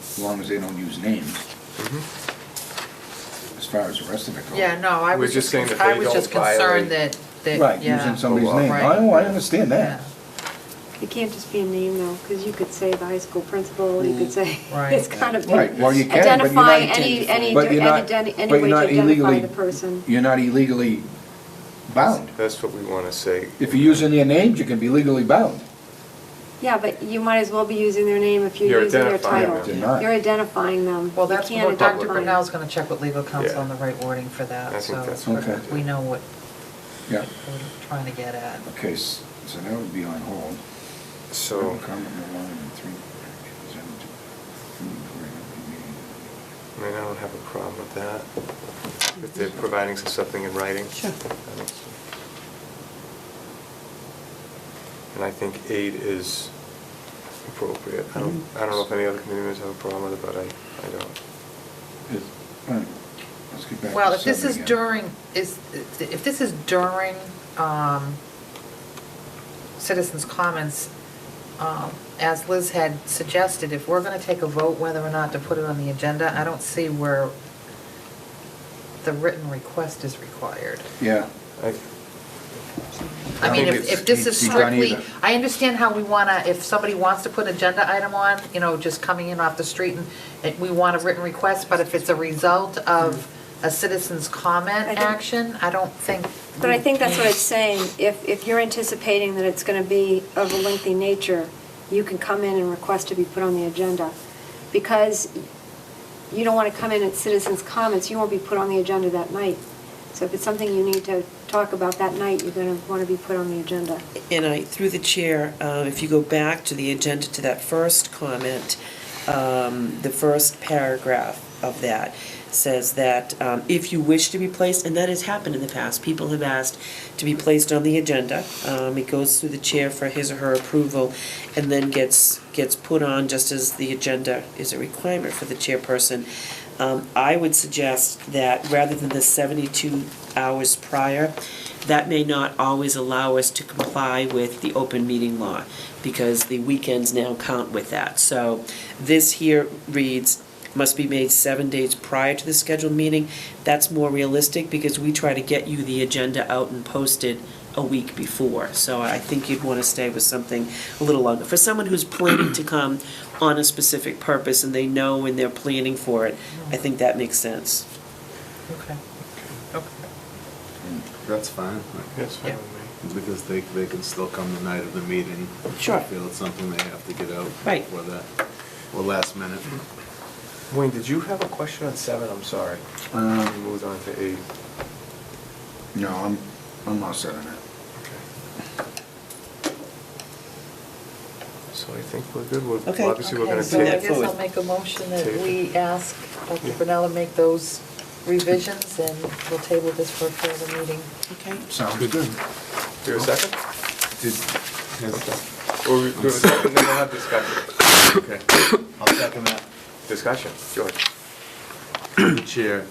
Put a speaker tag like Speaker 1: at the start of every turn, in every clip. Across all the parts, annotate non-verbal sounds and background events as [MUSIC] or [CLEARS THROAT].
Speaker 1: as long as they don't use names,
Speaker 2: Mm-hmm.
Speaker 1: as far as the rest of it goes.
Speaker 3: Yeah, no, I
Speaker 2: We're
Speaker 3: was
Speaker 2: just
Speaker 3: just,
Speaker 2: saying
Speaker 3: con-
Speaker 2: that
Speaker 3: I
Speaker 2: they
Speaker 3: was just
Speaker 2: don't violate-
Speaker 3: concerned that,
Speaker 1: Right,
Speaker 3: that, yeah.
Speaker 1: using somebody's
Speaker 2: Well,
Speaker 1: name.
Speaker 3: right.
Speaker 1: I, oh, I understand
Speaker 3: Yeah,
Speaker 1: that.
Speaker 4: It can't just be a name though, because you could say the high school principal, you could say,
Speaker 3: [LAUGHS] Right.
Speaker 4: it's kind of.
Speaker 1: Mm. Right, well, you can, but you're not-
Speaker 4: Identify any, any,
Speaker 1: But you're not-
Speaker 4: any
Speaker 1: but
Speaker 4: any way
Speaker 1: you're
Speaker 4: to
Speaker 1: not
Speaker 4: identify
Speaker 1: illegally-
Speaker 4: the person.
Speaker 1: You're not illegally bound.
Speaker 2: That's what we want to say.
Speaker 1: If you're using their names, you can be legally bound.
Speaker 4: Yeah, but you might as well be using their name if you're
Speaker 2: You're
Speaker 4: using their
Speaker 2: identifying
Speaker 4: title.
Speaker 1: them. You're not.
Speaker 4: You're identifying them.
Speaker 3: Well,
Speaker 4: You
Speaker 3: that's
Speaker 4: can't
Speaker 3: what Dr.
Speaker 4: identify them.
Speaker 3: Brunel's gonna check with legal counsel
Speaker 2: Yeah.
Speaker 3: on the right wording for
Speaker 2: I
Speaker 3: that,
Speaker 2: think
Speaker 3: so
Speaker 2: that's
Speaker 1: what Okay.
Speaker 3: we know what
Speaker 1: Yeah.
Speaker 3: we're trying to get at.
Speaker 1: Okay, s- so that would be on hold.
Speaker 2: So,
Speaker 1: Comment no longer than three actions and three recording of the meeting.
Speaker 2: I mean, I don't have a problem with that, if they're providing us something in writing.
Speaker 5: Sure.
Speaker 2: I don't see- And I think eight is appropriate. I don't, I don't know if any other committee members have a problem with it, but I, I don't.
Speaker 1: Is- all right, Let's get back to
Speaker 3: Well, if this
Speaker 1: seven
Speaker 3: is
Speaker 1: again.
Speaker 3: during, is, if this is during um, citizens' comments, um, as Liz had suggested, if we're going to take a vote whether or not to put it on the agenda, I don't see where the written request is required.
Speaker 1: Yeah.
Speaker 2: I,
Speaker 3: I mean,
Speaker 1: think
Speaker 3: if,
Speaker 1: it's-
Speaker 3: if this is
Speaker 1: you don't
Speaker 3: strictly,
Speaker 1: either.
Speaker 3: I understand how we want to, if somebody wants to put an agenda item on, you know, just coming in off the street and, and we want a written request, but if it's a result of a citizen's comment
Speaker 4: I think-
Speaker 3: action, I don't think.
Speaker 4: But I think that's what it's saying, if, if you're anticipating that it's going to be of a lengthy nature, you can come in and request to be put on the agenda. Because you don't want to come in at citizens' comments, you won't be put on the agenda that night. So if it's something you need to talk about that night, you're going to want to be put on the agenda.
Speaker 5: And I, through the chair, uh, if you go back to the agenda, to that first comment, um, the first paragraph of that says that um, if you wish to be placed, and that has happened in the past, people have asked to be placed on the agenda. Um, It goes through the chair for his or her approval, and then gets, gets put on just as the agenda is a requirement for the chairperson. Um, I would suggest that rather than the 72 hours prior, that may not always allow us to comply with the open meeting law, because the weekends now count with that. So this here reads, must be made seven days prior to the scheduled meeting. That's more realistic, because we try to get you the agenda out and posted a week before. So I think you'd want to stay with something a little longer. For someone who's planning to come on a specific purpose, and they know when they're planning for it, I think that makes sense.
Speaker 3: Okay. Okay.
Speaker 6: That's fine,
Speaker 2: that's fine
Speaker 3: Yeah.
Speaker 2: with me.
Speaker 6: because they, they can still come the night of the meeting. if they
Speaker 5: Sure.
Speaker 6: Feel it's something they have to get out.
Speaker 5: Right.
Speaker 6: For that, or last minute.
Speaker 2: Wayne, did you have a question on seven? I'm sorry.
Speaker 1: Um,
Speaker 2: We moved on to eight.
Speaker 1: No, I'm, I'm not set on that.
Speaker 2: So I think we're good. We're,
Speaker 5: Okay.
Speaker 2: obviously, we're
Speaker 3: Okay,
Speaker 2: gonna
Speaker 3: so I
Speaker 2: take.
Speaker 3: guess I'll make a motion that
Speaker 2: Take it.
Speaker 3: we ask Dr.
Speaker 2: Yeah.
Speaker 3: Brunella to make those revisions and we'll table this for a further meeting.
Speaker 5: Okay.
Speaker 1: Sounds good.
Speaker 2: Do you have a second?
Speaker 6: Did, has,
Speaker 2: Okay. Or we, do you have a second, then we'll have discussion.
Speaker 6: okay, I'll second that.
Speaker 2: Discussion, George.
Speaker 6: [CLEARS THROAT] Chair,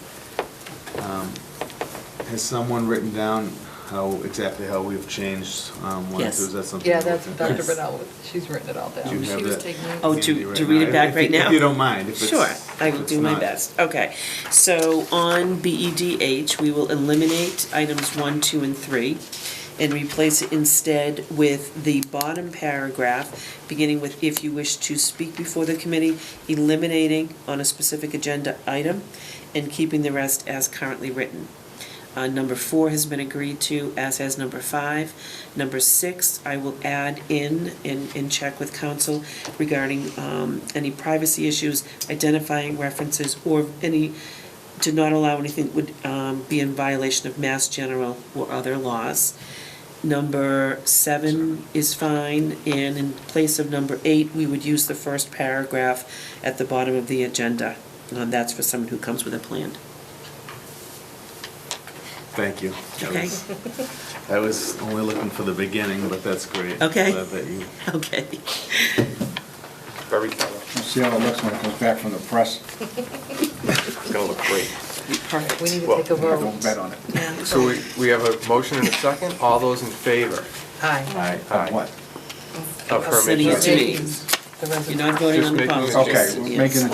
Speaker 6: um, has someone written down how, exactly how we've changed, um, one or
Speaker 5: Yes.
Speaker 6: two, is that something?
Speaker 3: Yeah,
Speaker 6: you're
Speaker 3: that's
Speaker 6: looking at?
Speaker 3: Dr. Brunel, she's written it all down.
Speaker 6: Do you have
Speaker 3: She was
Speaker 6: that?
Speaker 3: taking.
Speaker 5: Oh,
Speaker 6: Handy
Speaker 5: to,
Speaker 6: right
Speaker 5: to read
Speaker 6: now,
Speaker 5: it back
Speaker 6: if-
Speaker 5: right now?
Speaker 6: If you don't mind, if it's.
Speaker 5: Sure, I
Speaker 6: if
Speaker 5: will
Speaker 6: it's
Speaker 5: do my
Speaker 6: not-
Speaker 5: best. Okay, so on BEDH, we will eliminate items one, two, and three, and replace it instead with the bottom paragraph, beginning with "if you wish to speak before the committee," eliminating on a specific agenda item, and keeping the rest as currently written. Uh, Number four has been agreed to, as has number five. Number six, I will add in, and, and check with council regarding um, any privacy issues, identifying references, or any, to not allow anything that would um, be in violation of mass general or other laws. Number seven is fine, and in place of number eight, we would use the first paragraph at the bottom of the agenda. Uh, That's for someone who comes with a plan.
Speaker 6: Thank you. That
Speaker 5: Okay.
Speaker 6: was- I was only looking for the beginning, but that's great.
Speaker 5: Okay.
Speaker 6: Glad that you
Speaker 5: Okay.
Speaker 2: Very thorough.
Speaker 1: We'll see how it looks when it comes back from the press.
Speaker 2: It's gonna look great.
Speaker 5: Perfect.
Speaker 3: We need to
Speaker 2: Well,
Speaker 3: take a vote.
Speaker 1: Don't bet on it.
Speaker 3: Yeah.
Speaker 2: So we, we have a motion and a second. All those in favor?
Speaker 3: Aye.
Speaker 1: On what?
Speaker 2: Of her
Speaker 5: City
Speaker 2: making-
Speaker 5: attorney.
Speaker 3: The
Speaker 5: You're
Speaker 3: resolution.
Speaker 5: not voting
Speaker 2: Just
Speaker 5: on the
Speaker 2: making a
Speaker 5: policy.
Speaker 2: change.
Speaker 1: Okay,
Speaker 5: just-
Speaker 1: we're making a
Speaker 5: yes.